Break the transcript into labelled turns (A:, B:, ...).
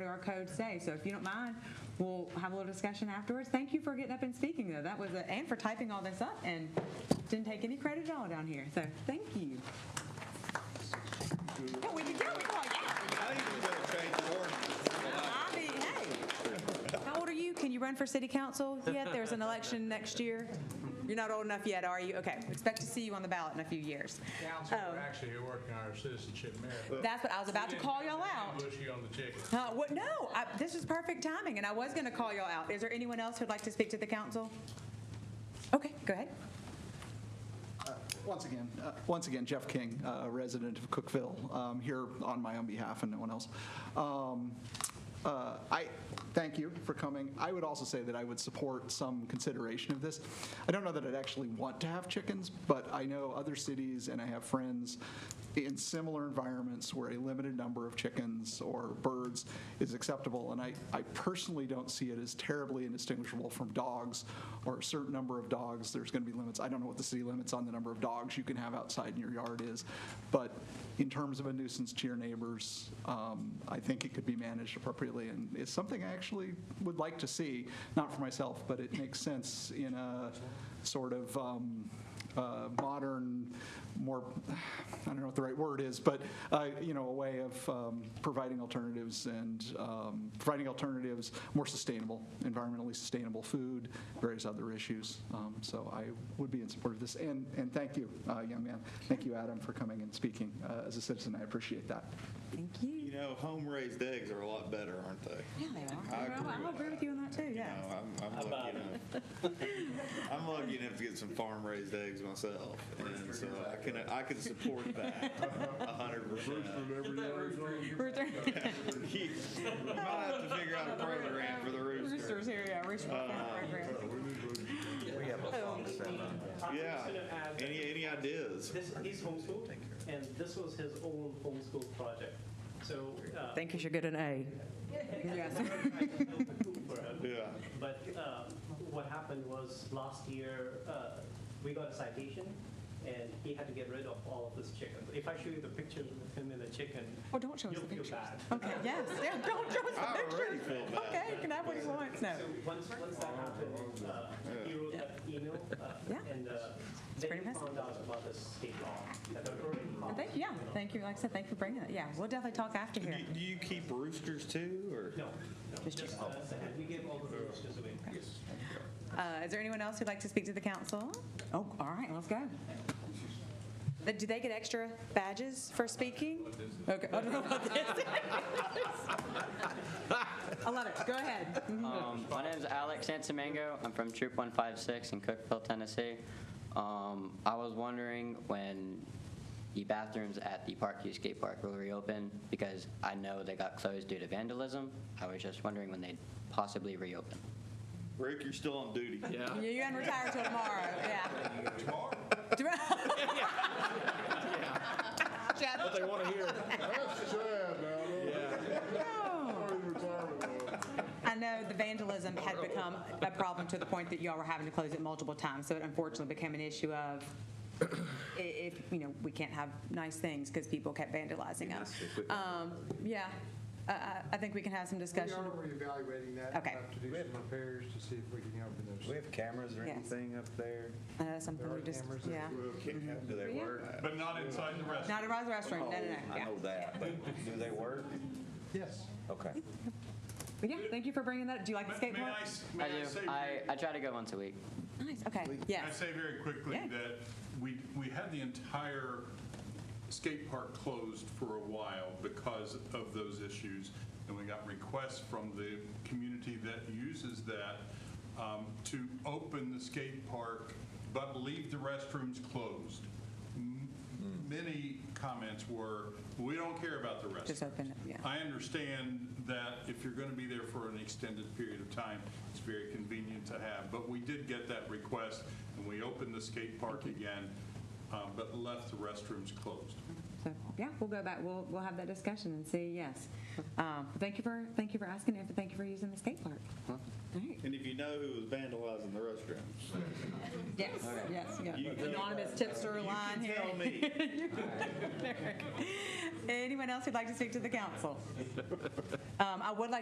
A: QR code say. So if you don't mind, we'll have a little discussion afterwards. Thank you for getting up and speaking, though. That was, a- and for typing all this up, and didn't take any credit at all down here, so thank you. Yeah, we did good. We called you
B: I think we better change the ordinance.
A: out. I mean, hey. How old are you? Can you run for city council yet? There's an election next year. You're not old enough yet, are you? Okay, expect to see you on the ballot in a few years.
C: Council,
A: Oh.
C: we're actually here working on our citizenship merit.
A: That's what I was about to call y'all out.
C: Ambush you on the ticket.
A: Uh, what, no, I, this is perfect timing, and I was going to call y'all out. Is there anyone else who'd like to speak to the council? Okay, go ahead.
D: Once again, uh, once again, Jeff King, a resident of Cookville, um, here on my own behalf and no one else. Um, uh, I, thank you for coming. I would also say that I would support some consideration of this. I don't know that I'd actually want to have chickens, but I know other cities and I have friends in similar environments where a limited number of chickens or birds is acceptable. And I, I personally don't see it as terribly indistinguishable from dogs or a certain number of dogs. There's going to be limits. I don't know what the city limits on the number of dogs you can have outside in your yard is. But in terms of a nuisance to your neighbors, um, I think it could be managed appropriately. And it's something I actually would like to see, not for myself, but it makes sense in a sort of um, uh, modern, more, I don't know what the right word is, but, uh, you know, a way of um, providing alternatives and um, providing alternatives, more sustainable, environmentally sustainable food, various other issues. Um, So I would be in support of this. And, and thank you, uh, young man. Thank you, Adam, for coming and speaking uh, as a citizen. I appreciate that.
A: Thank you.
B: You know, home-raised eggs are a lot better, aren't they?
A: Yeah, they
B: I
A: are.
B: agree
A: Well, I'll
B: with
A: agree with you on that, too,
B: You
A: yes.
B: know, I'm, I'm lucky enough. I'm lucky enough to get some farm-raised eggs myself, and so I can, I can support that a hundred percent.
A: Rooster-
B: You Might have to figure out a program for the Uh, rooster.
A: Roosters here, yeah, rooster program.
B: Yeah,
E: I'm just gonna add
B: any, any ideas?
E: this, he's homeschooled, and this was his own homeschool project. So, uh,
A: Think you should get an A. Yes.
E: I felt the coup for him.
B: Yeah,
E: But um, what happened was last year, uh, we got a citation, and he had to get rid of all of his chickens. If I show you the pictures of him and the chicken,
A: Oh, don't show us
E: you'll
A: the
E: feel
A: pictures.
E: bad.
A: Okay, yes, yeah, don't show us the
B: I already
A: pictures.
B: feel bad.
A: Okay, you can have what he wants, no.
E: So once, once that happened, uh, he wrote that email, uh,
A: Yeah.
E: and uh, then
A: pretty
E: he
A: messy.
E: found out about the state law that had already
A: And
E: passed.
A: Thank you, yeah, thank you, like I said, thank you for bringing it. Yeah, we'll definitely talk after
B: Do
A: here.
B: do you keep roosters too, or?
E: No, no, just, uh, we give all the rules just away.
A: Uh, Is there anyone else who'd like to speak to the council? Oh, all right, let's go. Th- Do they get extra badges for speaking? Okay, I don't know what this is. I love it, go ahead.
F: Um, my name is Alex Santamango. I'm from Troop 156 in Cookville, Tennessee. Um, I was wondering when the bathrooms at the Parkview Skate Park will reopen because I know they got closed due to vandalism. I was just wondering when they'd possibly reopen.
B: Rick, you're still on duty. Yeah.
A: You- You're gonna retire till tomorrow, yeah. Tomorrow? Tomorrow?
C: They want to hear.
G: That's sad now,
A: No.
G: though. Retirement, though.
A: I know the vandalism had become a problem to the point that y'all were having to close it multiple times, so it unfortunately became an issue of i- if, you know, we can't have nice things because people kept vandalizing us. Um, yeah, I, I, I think we can have some
H: We
A: discussion.
H: are reevaluating that.
A: Okay.
H: We'll have to do some repairs to see if we can help in
I: Do we
H: those.
I: have cameras or
A: Yes.
I: anything up there?
A: I know something
H: There
A: we
H: are
A: just,
H: cameras that
A: yeah.
B: Do they work?
C: But not inside the restaurant.
A: Not a Rise Restaurant, no, no,
I: Oh,
A: no,
I: I
A: yeah.
I: know that, but do they work?
H: Yes.
I: Okay.
A: But yeah, thank you for bringing that, do you like the skate
C: May
A: park?
C: I, s- may
F: I
C: I
F: do.
C: say?
F: I, I try to go once a week.
A: Nice, okay,
C: Can I
A: yes.
C: say very quickly
A: Yeah.
C: that we, we had the entire skate park closed for a while because of those issues, and we got requests from the community that uses that um, to open the skate park, but leave the restrooms closed. M- Many comments were, we don't care about the restrooms.
A: Just open it, yeah.
C: I understand that if you're going to be there for an extended period of time, it's very convenient to have, but we did get that request, and we opened the skate park again, uh, but left the restrooms closed.
A: So, yeah, we'll go back, we'll, we'll have that discussion and see, yes. Um, thank you for, thank you for asking, and thank you for using the skate park. All right.
B: And if you know who was vandalizing the restrooms,
A: Yes, yes,
B: You-
A: yeah. Anonymous tipster line here.
B: tell me.
A: Anyone else who'd like to speak to the council? Um, I would like